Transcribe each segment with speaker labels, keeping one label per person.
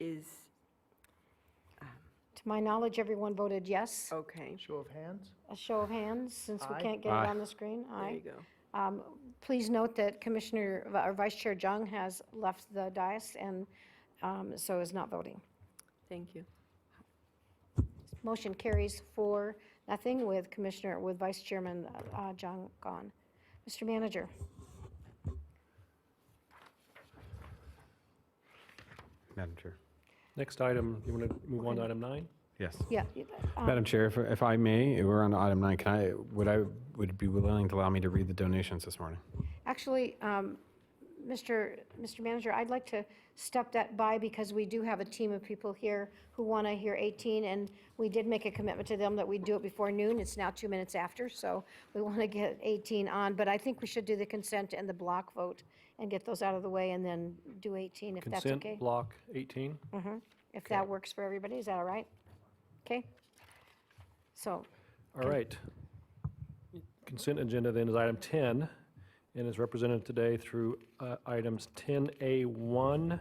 Speaker 1: is,
Speaker 2: To my knowledge, everyone voted yes.
Speaker 1: okay,
Speaker 3: Show of hands?
Speaker 2: A show of hands, since we
Speaker 3: Aye.
Speaker 2: can't get
Speaker 4: Aye.
Speaker 2: it on the screen.
Speaker 1: there you
Speaker 2: Aye.
Speaker 1: go.
Speaker 2: Um, Please note that Commissioner, uh, or Vice Chair Jung has left the dais and um, so is not voting.
Speaker 1: Thank you.
Speaker 2: Motion carries four, nothing with Commissioner, with Vice Chairman uh, Jung gone. Mr. Manager,
Speaker 4: Madam Chair.
Speaker 5: Next item, you want to move on to item nine?
Speaker 4: Yes.
Speaker 2: yeah. you- uh,
Speaker 4: Madam Chair, if, if I may, we're on to item nine. Can I, would I, would it be willing to allow me to read the donations this morning?
Speaker 2: Actually, um, Mr. Mr. Manager, I'd like to step that by because we do have a team of people here who want to hear 18, and we did make a commitment to them that we'd do it before noon. It's now two minutes after, so we want to get 18 on, but I think we should do the consent and the block vote and get those out of the way and then do 18 if that's okay.
Speaker 5: Consent block 18.
Speaker 2: If that works for everybody, is that all right? Okay? So,
Speaker 5: All right. Consent agenda then is item 10, and is represented today through uh, items 10A1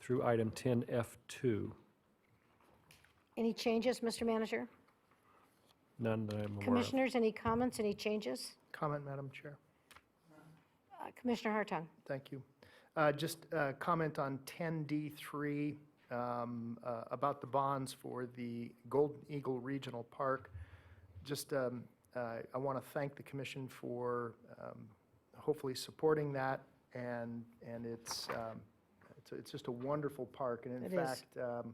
Speaker 5: through item 10F2.
Speaker 2: any changes, Mr. Manager?
Speaker 5: None that I'm aware of.
Speaker 2: Commissioners, any comments, any changes?
Speaker 3: Comment, Madam Chair.
Speaker 2: Uh, Commissioner Hartung?
Speaker 3: Thank you. Uh, Just uh comment on 10D3 um, uh, about the bonds for the Golden Eagle Regional Park. Just, um, uh, I want to thank the commission for um, hopefully supporting that, and, and it's, um, it's- it's just a wonderful park. And
Speaker 2: It
Speaker 3: in
Speaker 2: is.
Speaker 3: fact, um,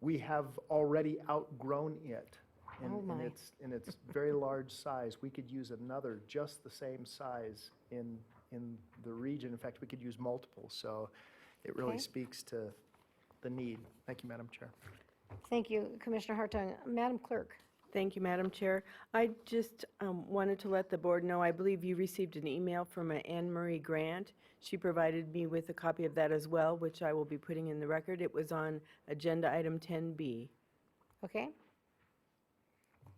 Speaker 3: we have already outgrown it in-
Speaker 2: Oh, my.
Speaker 3: in its, in its very large size. We could use another just the same size in, in the region. In fact, we could use multiple, so it
Speaker 2: Okay.
Speaker 3: really speaks to the need. Thank you, Madam Chair.
Speaker 2: Thank you, Commissioner Hartung. Madam Clerk,
Speaker 1: Thank you, Madam Chair. I just um, wanted to let the board know, I believe you received an email from a Anne Marie Grant. She provided me with a copy of that as well, which I will be putting in the record. It was on Agenda Item 10B.
Speaker 2: okay?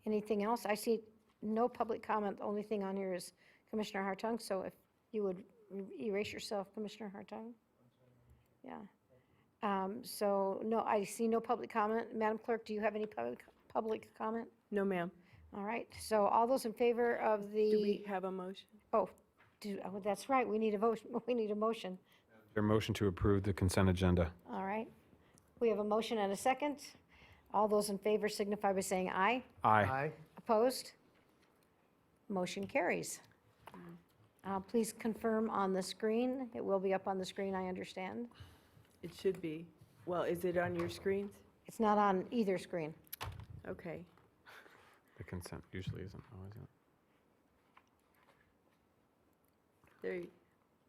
Speaker 2: Anything else? I see no public comment. The only thing on here is Commissioner Hartung, so if you would erase yourself, Commissioner Hartung. Yeah. Um, So, no, I see no public comment. Madam Clerk, do you have any public, public comment?
Speaker 1: No, ma'am.
Speaker 2: All right, so all those in favor of
Speaker 1: Do we
Speaker 2: the,
Speaker 1: have a motion?
Speaker 2: oh, do- oh, that's right, we need a vote, we need a motion.
Speaker 4: Your motion to approve the consent agenda.
Speaker 2: All right. We have a motion and a second. All those in favor signify by saying aye.
Speaker 4: Aye.
Speaker 2: Opposed? Motion carries. Uh, Please confirm on the screen. It will be up on the screen, I understand.
Speaker 1: It should be. Well, is it on your screens?
Speaker 2: It's not on either screen.
Speaker 1: Okay.
Speaker 4: The consent usually isn't always.
Speaker 1: There, you-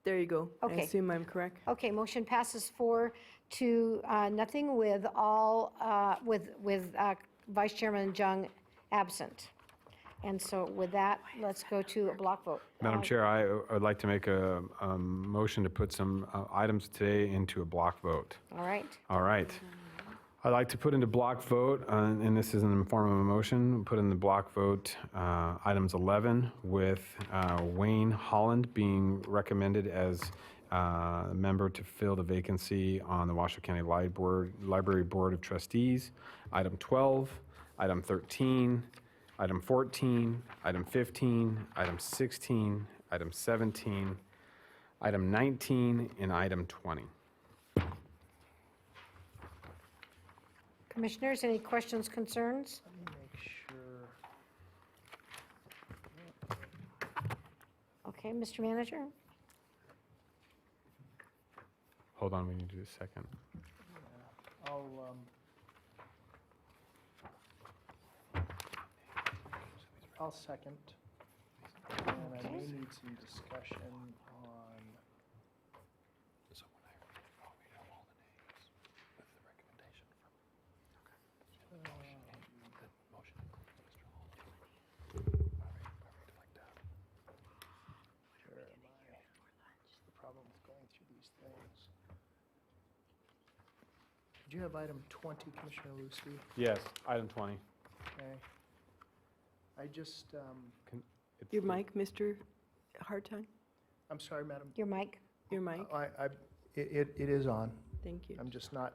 Speaker 1: there you go.
Speaker 2: Okay.
Speaker 1: I assume I'm correct.
Speaker 2: Okay, motion passes four to uh, nothing with all, uh, with, with uh, Vice Chairman Jung absent. And so with that, let's go to a block vote.
Speaker 4: Madam
Speaker 2: Uh,
Speaker 4: Chair, I I would like to make a, a motion to put some uh, items today into a block vote.
Speaker 2: All right.
Speaker 4: All right. I'd like to put into block vote, uh, and this is in the form of a motion, put in the block vote uh, items 11 with uh, Wayne Holland being recommended as uh, a member to fill the vacancy on the Washoe County Li- Board- Library Board of Trustees. Item 12, item 13, item 14, item 15, item 16, item 17, item 19, and item 20.
Speaker 2: Commissioners, any questions, concerns?
Speaker 3: Let me make sure.
Speaker 2: Okay, Mr. Manager?
Speaker 4: Hold on, we need to do a second.
Speaker 3: I'll, um, um, I'll second. And I may
Speaker 2: Okay.
Speaker 3: need some discussion on. Where am I? It's The problem with going through these things. Do you have item 20, Commissioner Lucy?
Speaker 4: Yes, item 20.
Speaker 3: Okay. I just, um,
Speaker 4: It's
Speaker 1: Your
Speaker 4: the-
Speaker 1: mic, Mr. Hartung?
Speaker 3: I'm sorry, Madam.
Speaker 2: Your mic?
Speaker 1: Your mic?
Speaker 3: I, I, it, it- it is on.
Speaker 1: Thank you.
Speaker 3: I'm just not